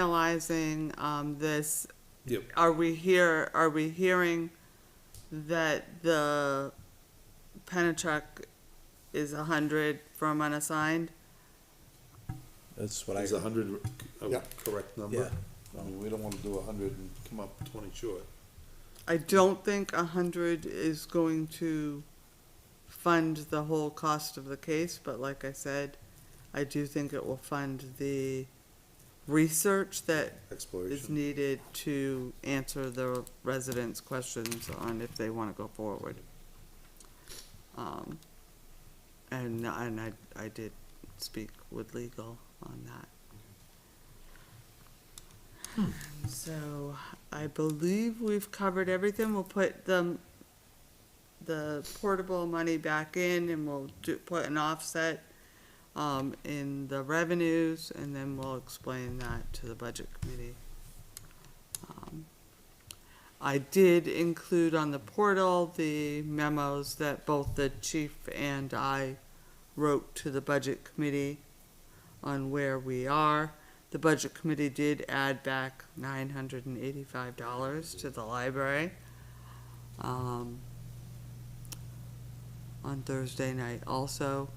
finalizing, um, this, Yep. are we here, are we hearing that the Penachuk is a hundred from unassigned? That's what I, Is a hundred a Yeah. correct yeah. number? I mean, we don't wanna do a hundred and come up twenty short. I don't think a hundred is going to fund the whole cost of the case, but like I said, I do think it will fund the research that is Exploration. needed to answer the residents' questions on if they wanna go forward. Um, and, and I, I did speak with legal on that. So, I believe we've covered everything, we'll put the, the portable money back in and we'll do, put an offset um, in the revenues, and then we'll explain that to the budget committee. Um, I did include on the portal the memos that both the chief and I wrote to the budget committee on where we are. The budget committee did add back nine hundred and eighty-five dollars to the library. Um, on Thursday night also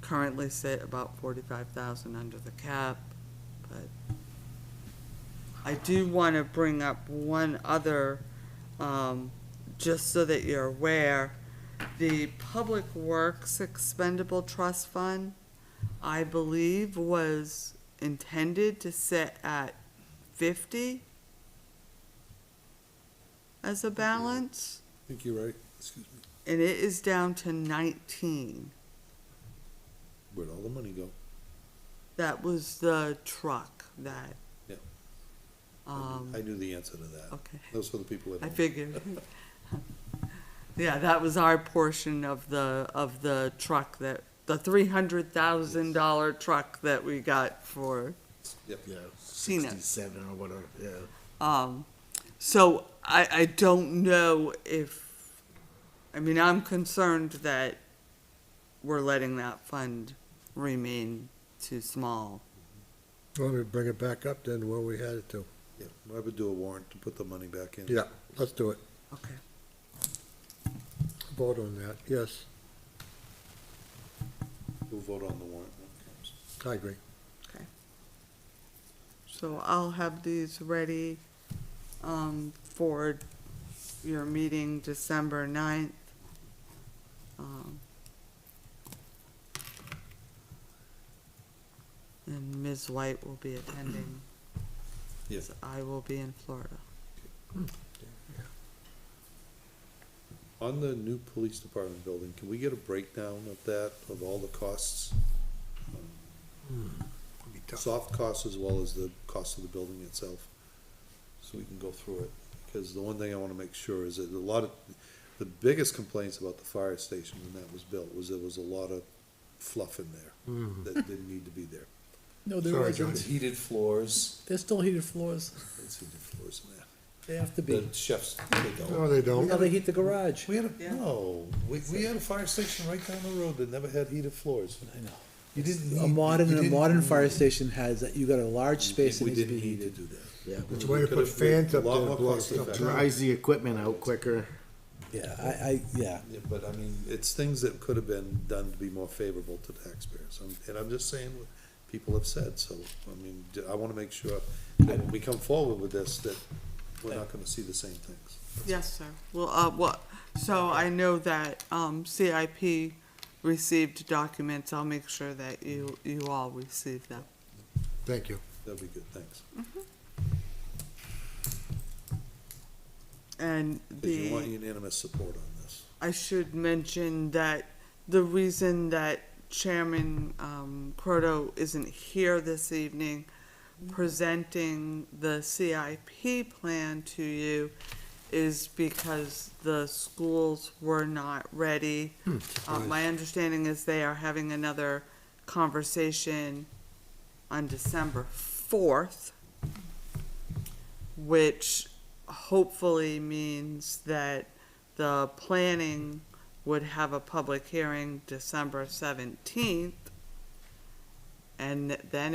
currently sit about forty-five thousand under the cap, but I do wanna bring up one other, um, just so that you're aware. The Public Works Expendable Trust Fund, I believe, was intended to sit at fifty as a balance, I think you're right, excuse me. and it is down to nineteen. Where'd all the money go? That was the truck that. Yep. Um, I knew the answer to that. okay, Those were the people at I home. figured. Yeah, that was our portion of the, of the truck that, the three hundred thousand dollar truck that we got for, Yep. Yeah, Peanuts. sixty-seven or whatever, yeah. um, so I, I don't know if, I mean, I'm concerned that we're letting that fund remain too small. Let me bring it back up then where we had it to. Yeah, I would do a warrant to put the money back in. Yeah, let's do it. Okay. Vote on that. Yes, We'll vote on the warrant when it comes. I agree. So I'll have these ready, um, for your meeting December ninth. Um, and Ms. White will be attending. Yes. I will be in Florida. On the new police department building, can we get a breakdown of that, of all the costs? It'll Hmm. be tough. Soft costs as well as the cost of the building itself, so we can go through it. Because the one thing I wanna make sure is that a lot of, the biggest complaints about the fire station when that was built was there was a lot of fluff in there Hmm. that didn't need to be there. No, there Sorry, wasn't. Johnny. Heated floors, There's still heated floors. there's heated floors in there. They have to be. The chefs, they No, don't. they We don't. gotta heat the garage. We had Yeah. a, no, we, we had a fire station right down the road that never had heated floors. I know. You didn't. A need- you modern, a didn't modern need- fire station has, that. you got a large space that We needs to didn't be need to heated. do that. Yeah, It's a way to Could've put fans been a up lot there and more blow cost stuff effective. down. Dries the equipment out quicker. Yeah, I, I, yeah. Yeah, but I mean, it's things that could have been done to be more favorable to taxpayers, Um, and I'm just saying what people have said, so, I mean, d- I wanna make sure that when we come forward with this, that we're not gonna see the same things. Yes, sir. Well, uh, what, so I know that, um, CIP received documents. I'll make sure that you, you all receive them. Thank you. That'd be good, thanks. And the. 'Cause you want unanimous support on this. I should mention that the reason that Chairman um, Croto isn't here this evening presenting the CIP plan to you is because the schools were not ready. Uh, My understanding is they are having another conversation on December fourth, which hopefully means that the planning would have a public hearing December seventeenth. And then